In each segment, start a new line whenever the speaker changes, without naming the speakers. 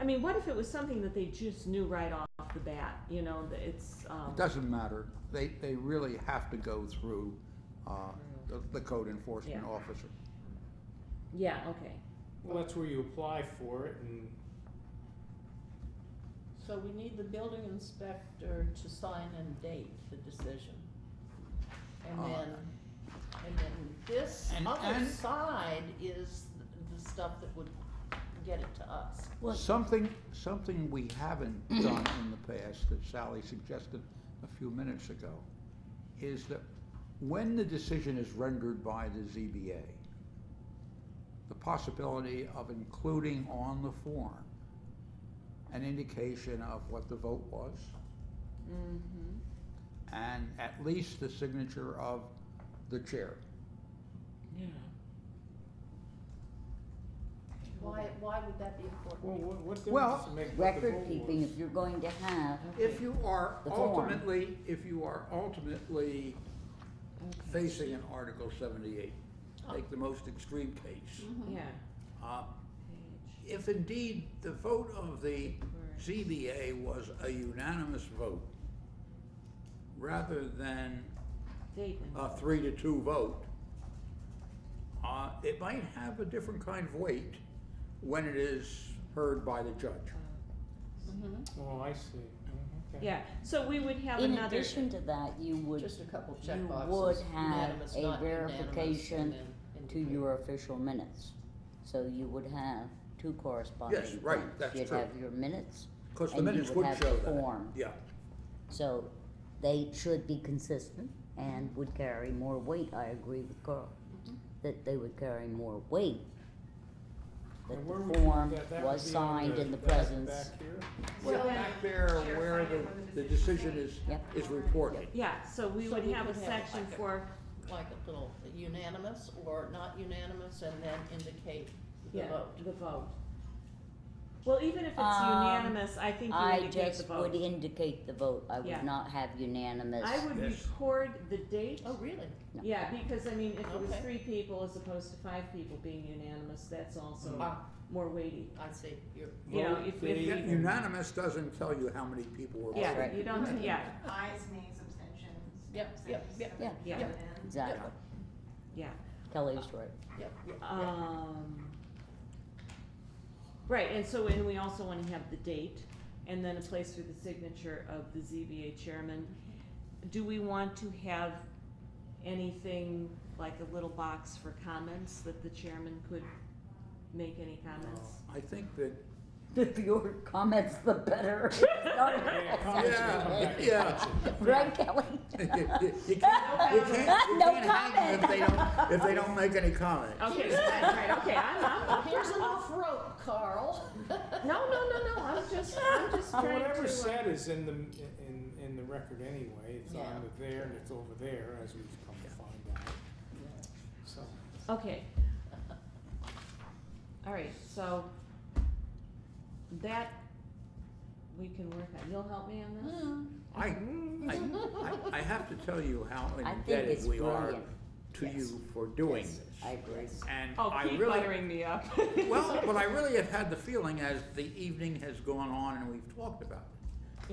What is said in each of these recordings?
I mean, what if it was something that they just knew right off the bat, you know, that it's, um,
It doesn't matter. They, they really have to go through uh, the- the code enforcement
Yeah.
officer.
yeah, okay.
Well, that's where you apply for it and
So we need the building inspector to sign and date the decision. And
Uh,
then, and then this
and-
other
and-
side is the stuff that would get it to us.
Something, something we haven't done in the past that Sally suggested a few minutes ago is that when the decision is rendered by the ZBA, the possibility of including on the form an indication of what the vote was
Mm-hmm.
and at least the signature of the chair.
Yeah.
Why, why would that be important?
well, what, what
Well,
difference does it make what the
Record
vote
keeping,
was?
if you're going to have,
If you are
The form.
ultimately, if you are ultimately facing an Article seventy-eight,
Oh.
take the most extreme case.
Yeah.
Mm-hmm.
uh, If indeed the vote of the ZBA was a unanimous vote, rather than
Date and.
a three to two vote, uh, it might have a different kind of weight when it is heard by the judge.
Mhm.
Oh, I see. Mm, okay.
Yeah, so we would have
in
another,
addition to that, you would,
Just a couple of
you
checkboxes.
would have
unanimous,
a
not unanimous, and
verification
then
to
indicate.
your official minutes. So you would have two corresponding
Yes,
things.
right, that's
You'd
true.
have your minutes,
Cause the
And you
minutes
would
would
have
show
the
that.
form.
Yeah,
so they should be consistent and would carry more weight. I agree with Carl,
Mm-hmm.
that they would carry more weight. That
And where
the
would you-
form
that- that would
was
be on
signed in the
back-
presence.
Back here?
Well,
well, back there where the, the decision is,
Yep.
is reported.
yeah, so we
So
would
we
have a
could have it
section
like a-
for,
Like a little unanimous or not unanimous and then indicate the
yeah,
vote.
the vote. Well, even if it's
Um,
unanimous, I think you
I
indicate the
just would
vote.
indicate the vote. I
Yeah.
would not have unanimous.
I would
Yes.
record the date,
Oh, really?
No.
yeah, because I mean, if it was
Okay.
three people as opposed to five people being unanimous, that's also
Ah,
more weighty.
I see, you're,
You know,
Vote
if- if
date
you-
and-
Unanimous doesn't tell you how many people were. voting.
Yeah,
right.
you don't, yeah,
Ayes, nays, abstentions.
Yep, yep, yep,
yep.
Yeah.
Abstentions.
Exactly.
yeah.
Kelly's right.
yep, yep, yep.
Um, right, and so, and we also wanna have the date, and then a place for the signature of the ZBA chairman. Do we want to have anything, like a little box for comments, that the chairman could make any comments?
I think that
The fewer comments, the better.
Yeah, comments will come back and
Yeah.
touch it.
Right, Kelly?
you can't, you can't, you
No
can't hang them if they don't, if they don't make any comment.
Okay, right, right, okay, I'm, I'm,
Here's enough rope, Carl.
no, no, no, no, I'm just, I'm just
Well,
trying
Whatever
to, uh,
said is in the, in, in the record anyway, it's
Yeah.
on the there and it's over there, as we've come to find out, so.
okay. All right, so, that, we can work on, you'll help me on this?
I, I, I- I have to tell you how
I think
indebted
it's
we are
brilliant.
to
Yes.
you for doing
Yes,
this.
I agree.
And
Oh,
I
keep
really,
buttering me up.
well, but I really have had the feeling as the evening has gone on and we've talked about it,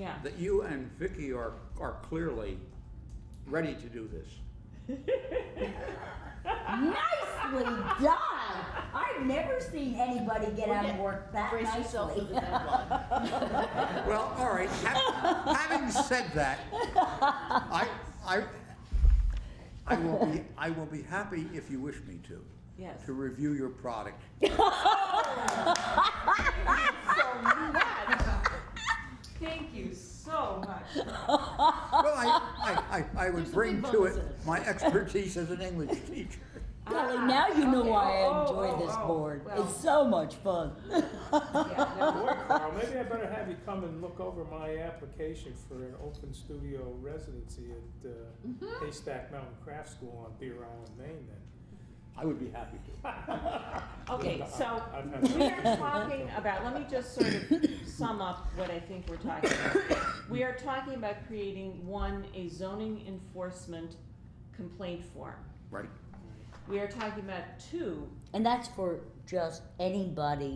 yeah.
that you and Vicky are, are clearly ready to do this.
Nicely done. I've never seen anybody get out of work that
Brace yourself for
nicely.
the deadline.
Well, all right, ha- having said that, I, I, I will be, I will be happy if you wish me to,
Yes.
to review your product.
Thank you so much.
Well, I, I, I, I would
There's a
bring
big
to
bonus
it
in it.
my expertise as an English teacher.
Kelly, now you know
Okay.
why
Oh,
I
oh,
enjoy this
oh,
board.
well.
It's so much fun.
Boy, Carl, maybe I better have you come and look over my application for an open studio residency at uh, Haystack Mountain Craft School on Deer Island, Maine then.
I would be happy to.
Okay, so
I've had
we are talking about, let me just sort of sum up what I think we're talking about. We are talking about creating, one, a zoning enforcement complaint form.
Right.
We are talking about, two,
And that's for just anybody